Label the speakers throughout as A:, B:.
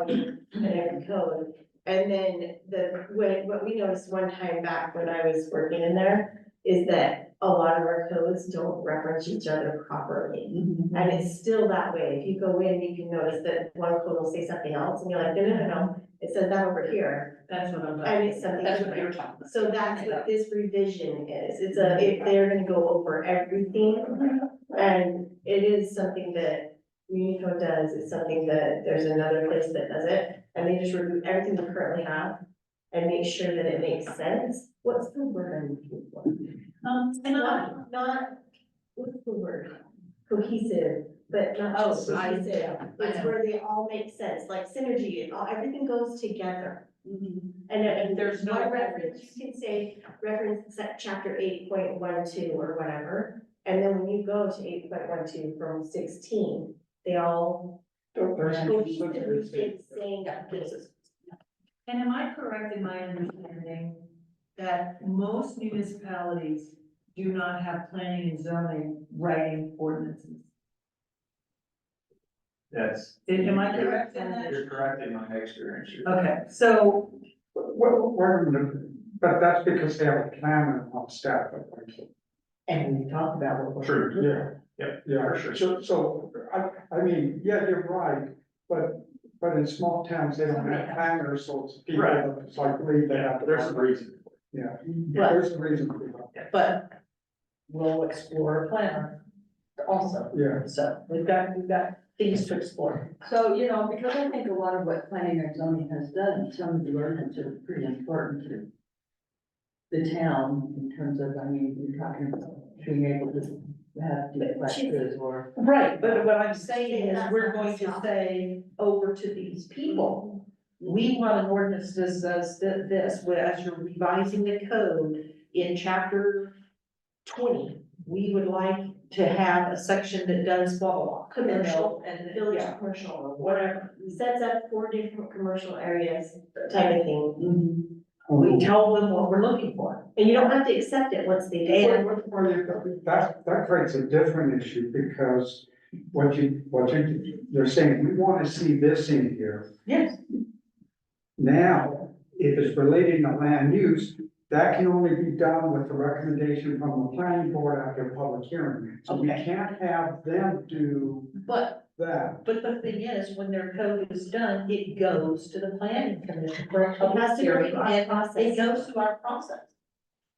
A: code and every code. And then the, when, what we noticed one time back when I was working in there is that a lot of our codes don't reference each other properly.
B: Mm-hmm.
A: And it's still that way. If you go in, you can notice that one code will say something else and you're like, no, no, no, no, it said that over here.
B: That's what I'm.
A: And it's something
B: That's what
A: different.
B: you're talking about.
A: So that's what this revision is, it's a, if they're gonna go over everything, and it is something that Unico does, it's something that there's another place that does it, and they just remove everything we currently have and make sure that it makes sense, what's the word I'm looking for?
B: Um, and I,
A: Not, not, what's the word? Cohesive, but not
B: Oh,
A: just
B: I-
A: cohesive,
B: I
A: it's
B: know.
A: where they all make sense, like synergy, and all, everything goes together.
B: Mm-hmm.
A: And uh,
B: And
A: and
B: there's
A: there's
B: no
A: one
B: reference.
A: reference, you can say reference set chapter eight point one two or whatever. And then when you go to eight point one two from sixteen, they all cohesively get saying that this is.
C: And am I correct in my understanding that most municipalities do not have planning and zoning writing ordinances?
D: Yes,
C: Am I correct
E: Uh,
C: in that?
D: you're correct in my experience.
F: Uh,
D: You're-
C: Okay, so,
F: Well, wait a minute, but that's because they have a planner on staff, I think.
G: And we talk about what we're.
D: True,
F: Yeah,
D: Yep,
F: yeah,
D: for sure.
F: so, so, I, I mean, yeah, you're right, but, but in small towns, they don't have planners, so it's people,
D: Right.
F: that it's like, leave they have. to-
D: There's a reason.
F: Yeah,
G: Right.
F: there's a reason, for
G: But we'll explore a planner also.
F: that. yeah.
G: So we've got, we've got things to explore.
E: So, you know, because I think a lot of what planning and zoning has done, some of the ordinance are pretty important to the town in terms of, I mean, you're talking about being able to have duplexes or.
G: Right, but what I'm saying is we're going to say over to these people. We want an ordinance that says that this, whereas you're revising the code in chapter twenty, we would like to have a section that does blah, blah, blah.
A: Commercial, Mm-hmm.
G: And,
A: Village
G: yeah,
A: commercial or whatever,
G: whatever.
A: sets up four different commercial areas type of thing.
B: Mm-hmm.
G: We tell them what we're looking for.
A: And you don't have to accept it once they do.
F: Well, well, well, you- That, that creates a different issue because what you, what you, you're saying, we want to see this in here.
G: Yes.
F: Now, if it's relating to land use, that can only be done with the recommendation from the planning board after a public hearing. So we
G: Okay.
F: can't have them do
G: But,
F: that.
G: but the thing is, when their code is done, it goes to the planning commission for a
A: It
G: public
A: has to go
G: hearing.
A: through our
G: and It
A: process.
G: goes through our process.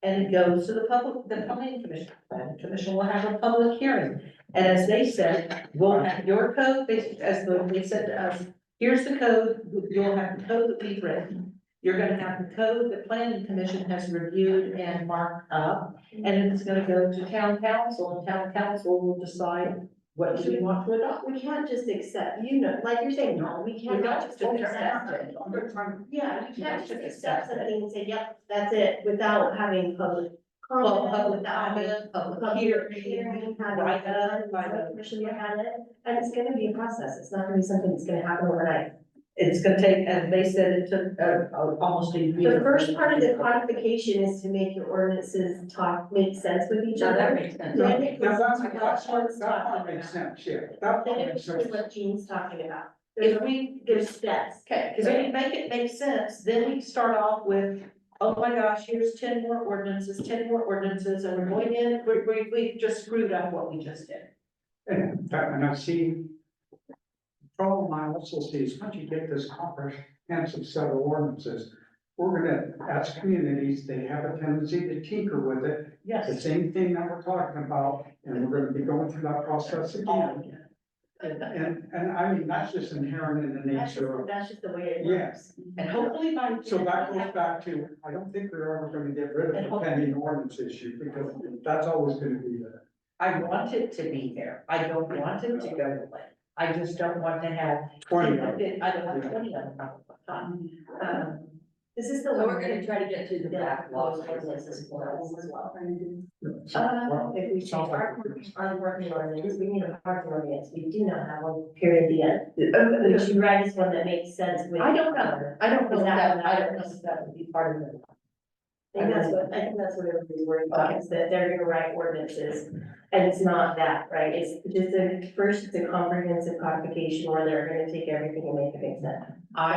G: And it goes to the public, the planning commission, planning commission will have a public hearing. And as they said, we'll have your code, they- as the- they said to us, here's the code, you'll have the code that we've written. You're gonna have the code the planning commission has reviewed and marked up, and then it's gonna go to town council, and town council will decide what do we want to adopt.
A: We can't just accept, you know, like you're saying, no, we
G: We're
A: can't
G: not
A: just
G: just gonna accept
A: accept it.
G: it.
A: Yeah, you
G: Yeah,
A: can't just
G: just
A: accept
G: accept it.
A: something and say, yep, that's it, without having public
G: Well,
A: comment,
G: public
A: without having
G: comment, public
A: public
G: hearing,
A: hearing,
G: Right, uh,
A: having,
G: by the-
A: public commission to have it, and it's gonna be a process, it's not gonna be something that's gonna happen overnight.
G: It's gonna take, and they said it took, uh, uh, almost a year.
A: The first part of the codification is to make your ordinances talk, make sense with each
E: Now, that
A: other.
E: makes sense.
A: Then it
F: Now,
A: goes
F: that's,
A: to
F: that's,
A: what Sean's
F: that part
A: talking
F: makes
A: about.
F: sense, yeah, that part
A: Then
F: makes
A: it's really
F: sense.
A: what Jean's talking about,
G: If
A: there's,
G: we,
A: there's steps.
G: okay, cause if we make it make sense, then we start off with, oh my gosh, here's ten more ordinances, ten more ordinances, and we're going in, we, we, we just screwed up what we just did.
F: And that, and I've seen. Problem I also see is once you get this comprehensive set of ordinances, we're gonna, as communities, they have a tendency to tinker with it. The
G: Yes.
F: same thing that we're talking about, and we're gonna be going through that process again. And, and I mean, that's just inherent in the
A: That's just,
F: nature of,
A: that's just the way it
F: Yes.
A: works.
G: And hopefully by.
F: so that goes back to, I don't think we're ever gonna get rid of the pending ordinance issue, because that's always gonna be there.
G: I want it to be there, I don't want it to go away, I just don't want to have.
F: Twenty of them.
G: I don't want twenty of them at the time. Um,
A: This is the.
E: So we're
A: one
E: gonna
A: that-
E: try to get to the backlog.
A: Yeah, those places as well.
F: Well,
A: Uh, If we change
F: sounds like
A: our
F: we're doing-
A: on working ordinance, we need a parking ordinance, we do not have one period yet. Would you write us one that makes sense with?
G: I don't know, I don't know
A: Is that-
G: that, I don't know if that would be part of it.
A: I think that's what, I think that's what everybody's worried about, is that they're gonna write ordinances, and it's not that, right? It's just a, first, it's a comprehensive codification where they're gonna take everything and make it make sense.
G: I